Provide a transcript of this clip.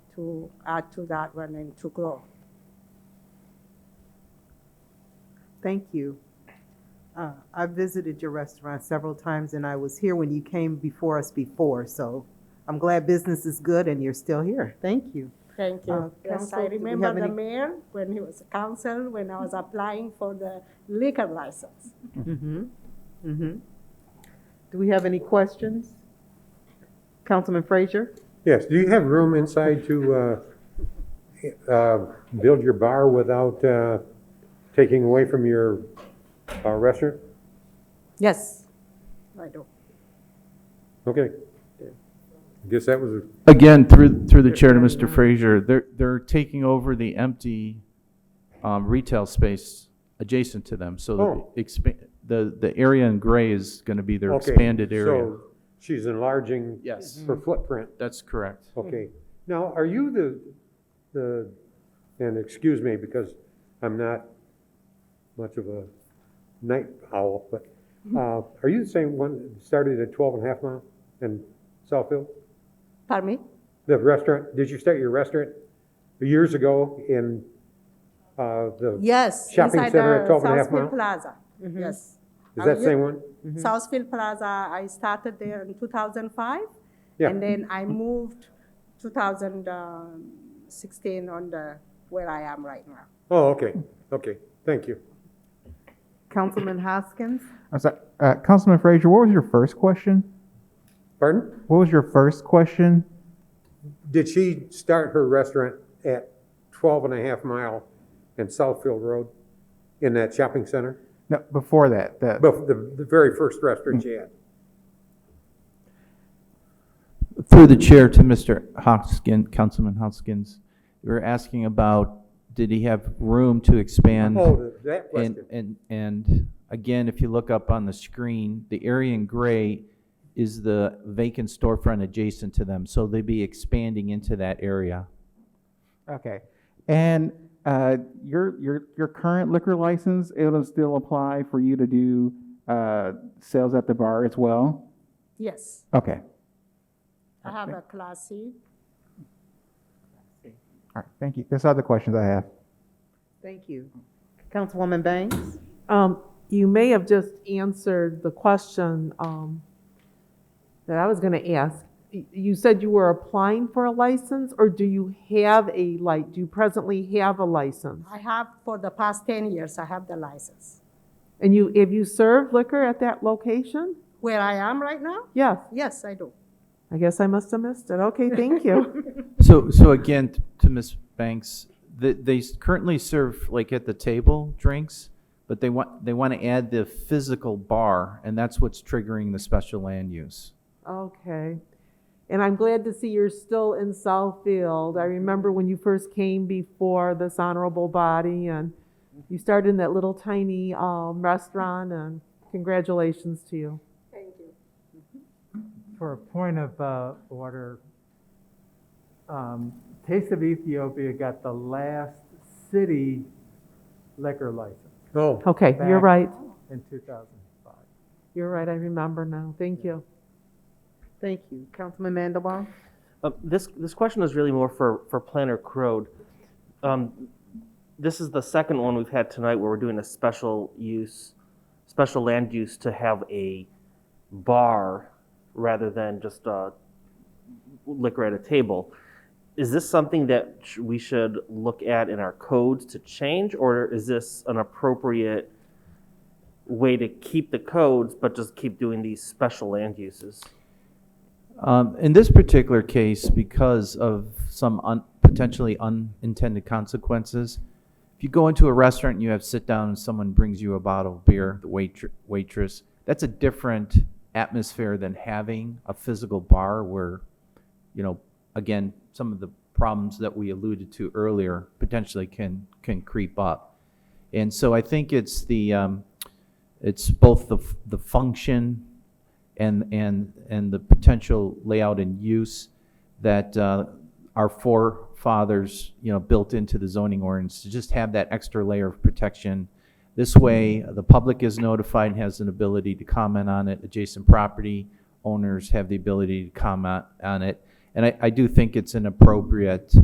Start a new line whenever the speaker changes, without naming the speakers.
to add to that one and to grow.
Thank you. Uh, I visited your restaurant several times and I was here when you came before us before, so I'm glad business is good and you're still here. Thank you.
Thank
Uh,
you. Yes,
council,
I
do we have
remember the
any-
mayor when he was council, when I was applying for the liquor license.
Mm-hmm. Mm-hmm. Do we have any questions? Councilman Frazier?
Yes, do you have room inside to uh, uh, build your bar without uh, taking away from your uh, restaurant?
Yes. I do.
Okay. Guess that was, a-
Again, through, through the chair to Mr. Frazier, they're, they're taking over the empty um, retail space adjacent to them, so
Oh.
the expa, the, the area in gray is gonna be their
okay.
expanded area.
So she's enlarging.
Yes.
Her footprint.
That's correct.
Okay. Now, are you the, the, and excuse me because I'm not much of a night owl, but uh, are you the same one that started at 12 and a half mile in Southfield?
Pardon me?
The restaurant, did you start your restaurant years ago in uh, the,
Yes.
Shopping
inside
center at
the
12 and a half
Southfield
mile?
Plaza, Mm-hmm. yes.
is that the same one? Mm-hmm.
Southfield Plaza, I started there in 2005.
Yeah.
And then I moved 2016 on the, where I am right now.
Oh, okay, okay, thank you.
Councilman Hoskins?
I'm sorry, uh, Councilman Frazier, what was your first question?
Pardon?
What was your first question?
Did she start her restaurant at 12 and a half mile in Southfield Road in that shopping center?
No, before that, that
Bef- The, the very first restaurant she had?
Through the chair to Mr. Hoskins, Councilman Hoskins, you were asking about, did he have room to expand?
Oh, that
Mm-hmm. And,
question.
and, and again, if you look up on the screen, the area in gray is the vacant storefront adjacent to them, so they'd be expanding into that area.
okay. And uh, your your your current liquor license, it'll still apply for you to do uh, sales at the bar as well.
Yes,
Okay,
I have a Class C.
all right. Thank you. That's all the questions I have.
Thank you. Councilwoman Banks?
Um, you may have just answered the question, um, that I was gonna ask. Y- You said you were applying for a license, or do you have a, like, do you presently have a license?
I have, for the past 10 years, I have the license.
And you, have you served liquor at that location?
Where I am right now?
Yes,
Yes, I do.
I guess I must have missed it. Okay, thank you.
So, so again, t- to Ms. Banks, they, they s- currently serve like at the table drinks, but they want, they want to add the physical bar, and that's what's triggering the special land use.
Okay. And I'm glad to see you're still in Southfield. I remember when you first came before this honorable body and you started in that little tiny um, restaurant and congratulations to you.
Thank you.
For a point of uh, order, um, Taste of Ethiopia got the last city liquor license
Oh,
Okay, you're
Back.
right.
in 2005.
You're right. I remember now. Thank you.
Thank you. Councilman Mandelbaum?
Uh, This, this question is really more for, for Planner Crode. Um, This is the second one we've had tonight where we're doing a special use, special land use to have a bar rather than just uh, liquor at a table. Is this something that sh- we should look at in our codes to change, or is this an appropriate way to keep the codes but just keep doing these special land uses?
Um, in this particular case, because of some un- potentially unintended consequences, if you go into a restaurant and you have sit down and someone brings you a bottle of beer, the wait- waitress, that's a different atmosphere than having a physical bar where, you know, again, some of the problems that we alluded to earlier potentially can can creep up. And so I think it's the um, it's both the f- the function and, and, and the potential layout and use that uh, our forefathers, you know, built into the zoning ordinance, to just have that extra layer of protection. This way, the public is notified, and has an ability to comment on it, adjacent property owners have the ability to comment on it. And I, I do think it's an appropriate